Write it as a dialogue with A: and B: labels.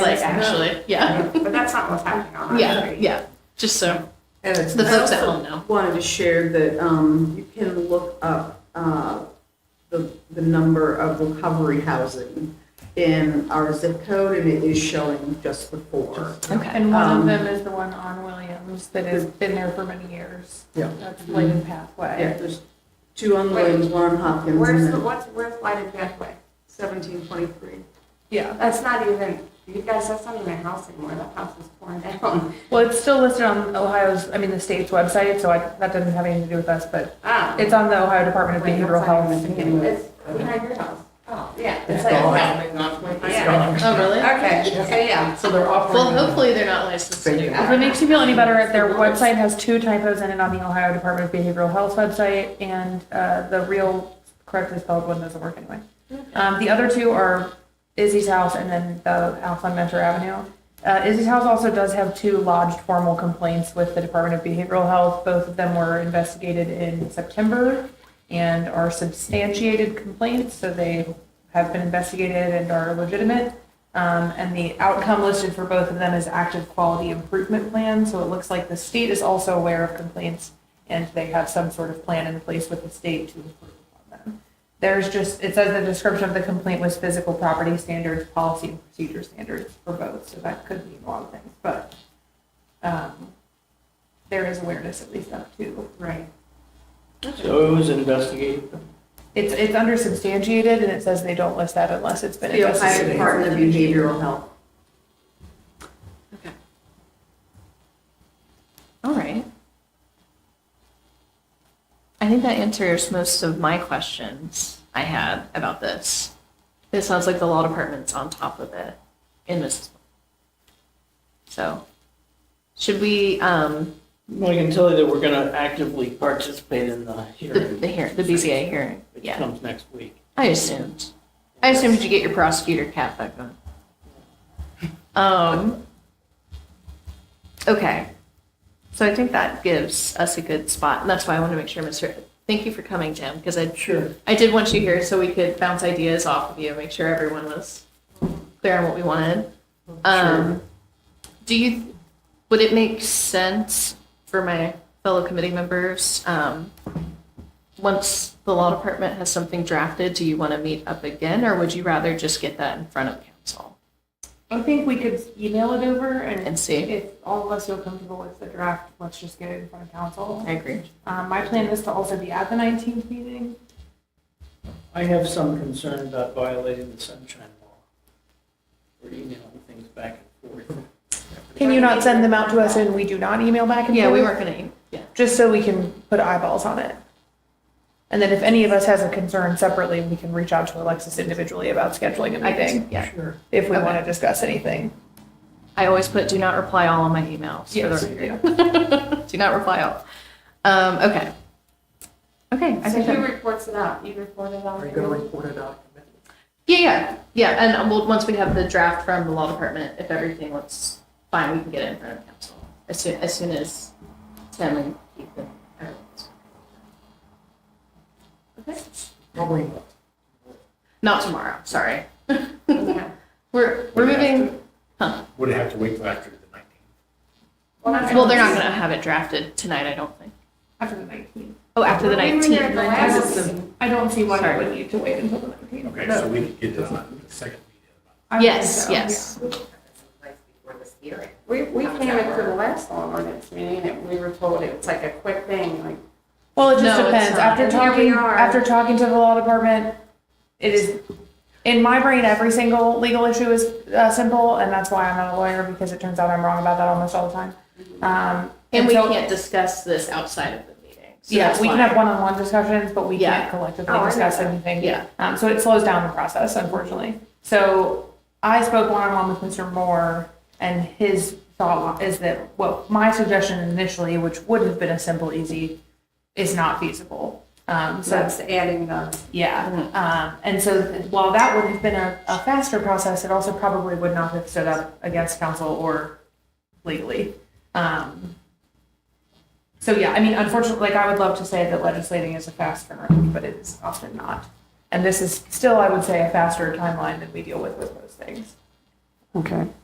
A: site, actually. Yeah.
B: But that's not what's happening on that
A: Yeah.
B: street.
A: Yeah. Just so
C: And it's
A: the
C: I
A: folks at
C: also
A: home know.
C: Wanted to share that um, you can look up uh, the, the number of recovery housing in our zip code, and it is showing just the four.
A: Okay.
D: And one
C: Um,
D: of them is the one on Williams that has been there for many years.
C: Yeah.
D: That's Bladen Pathway.
C: Yeah, there's two on Williams, one on Hopkins. and
B: Where's the,
C: then-
B: what's, where's lighted pathway? Seventeen twenty-three.
D: Yeah.
B: That's not even, you guys, that's not even a house anymore. That house is torn down. Um,
D: Well, it's still listed on Ohio's, I mean, the state's website, so I, that doesn't have anything to do with us, but
B: Ah.
D: it's on the Ohio Department of
B: Wait, that's
D: Behavioral
B: not
D: Health.
B: even-
D: to begin with.
B: It's behind your house. Oh, yeah.
E: It's
B: like-
E: gone.
B: yeah.
E: It's
B: Yeah.
E: gone.
A: Oh, really?
B: Okay, so yeah.
E: So they're
A: Well,
E: offering,
A: hopefully they're not licensed to do
E: Thank
A: that.
D: If it makes you feel any better, their website has two typos in it on the Ohio Department of Behavioral Health website, and uh, the real correctly spelled one doesn't work anyway. Um, the other two are Izzy's house and then the house on Mentor Avenue. Uh, Izzy's house also does have two lodged formal complaints with the Department of Behavioral Health. Both of them were investigated in September and are substantiated complaints, so they have been investigated and are legitimate. Um, and the outcome listed for both of them is active quality improvement plan. So it looks like the state is also aware of complaints and they have some sort of plan in place with the state to improve upon them. There's just, it says the description of the complaint was physical property standards, policy and procedure standards for both. So that could mean a lot of things, but, um, there is awareness at least up to.
B: Right.
F: So it was investigated.
D: It's, it's under substantiated and it says they don't list that unless it's been
C: The Ohio
D: investigated.
C: Department of Behavioral Health.
A: All right. I think that answers most of my questions I had about this. It sounds like the law department's on top of it in this. So, should we, um,
F: Well, I can tell you that we're going to actively participate in the
A: the,
F: hearing.
A: the hearing, the BZA hearing?
F: Which
A: Yeah,
F: comes next week.
A: I assumed. I assumed you get your prosecutor cap back on. Um, okay. So I think that gives us a good spot, and that's why I want to make sure, Mr. Thank you for coming, Jim, because I
F: Sure.
A: I did want you here so we could bounce ideas off of you, and make sure everyone was clear on what we wanted. Um, do you, would it make sense for my fellow committee members, um, once the law department has something drafted, do you want to meet up again, or would you rather just get that in front of council
D: I think we could email it over
A: and see?
D: If all of us feel comfortable with the draft, let's just get it in front of council.
A: I agree.
D: Um, my plan is to also be at the nineteenth meeting.
F: I have some concern about violating the sunshine law. We're emailing things back and forth.
D: Can you not send them out to us and we do not email back and
A: Yeah, we
D: forth?
A: weren't gonna, yeah,
D: Just so we can put eyeballs on it. And then if any of us has a concern separately, we can reach out to Alexis individually about scheduling a
A: I guess,
D: meeting
A: yeah.
F: Sure.
D: if we
A: Okay.
D: want to discuss anything.
A: I always put do not reply all on my emails.
D: Yes,
A: for
D: you
A: the record. Do not reply all. Um, okay. Okay, I
B: So
A: think
B: who
A: that,
B: reports it out? You report it out?
E: are you going to report it out?
A: yeah, yeah, yeah, and um, we'll, once we have the draft from the law department, if everything looks fine, we can get it in front of council. As soon, as soon as Tim and Keith and everyone's. Okay.
E: Probably not.
A: Not tomorrow, sorry.
B: Yeah.
A: We're, we're moving, huh?
G: Would it have to wait till after the 19th?
B: Well, that's-
A: Well, they're not gonna have it drafted tonight, I don't think.
D: After the nineteenth.
A: Oh, after the
B: We were there at
A: nineteenth.
B: the last
D: Nineteenth.
B: meeting.
D: I don't see why
A: Sorry.
D: we would need to wait until the nineteenth.
G: Okay, so we could get this on the second meeting.
A: Yes, yes.
B: We, we came into the last law ordinance meeting and we were told it was like a quick thing, like,
D: Well, it just
A: No, it's
D: depends.
A: not.
D: After
B: And here we
D: talking,
B: are.
D: after talking to the law department, it is, in my brain, every single legal issue is uh, simple, and that's why I'm not a lawyer, because it turns out I'm wrong about that almost all the time. Um,
A: And we
D: so-
A: can't discuss this outside of the meeting. so
D: Yeah,
A: that's
D: we can
A: why-
D: have one-on-one discussions, but we
A: Yeah.
D: can't collectively
B: Oh, I know
D: discuss
B: that.
D: anything.
A: Yeah.
D: Um, so it slows down the process, unfortunately. So I spoke one-on-one with Mr. Moore, and his thought is that, well, my suggestion initially, which would have been a simple, easy, is not feasible. Um, so
B: that's adding the.
D: yeah. Um, and so th- while that would have been a, a faster process, it also probably would not have stood up against counsel or legally. Um, so yeah, I mean, unfortunately, like I would love to say that legislating is a fast turnaround, but it is often not. And this is still, I would say, a faster timeline than we deal with with most things.
C: Okay.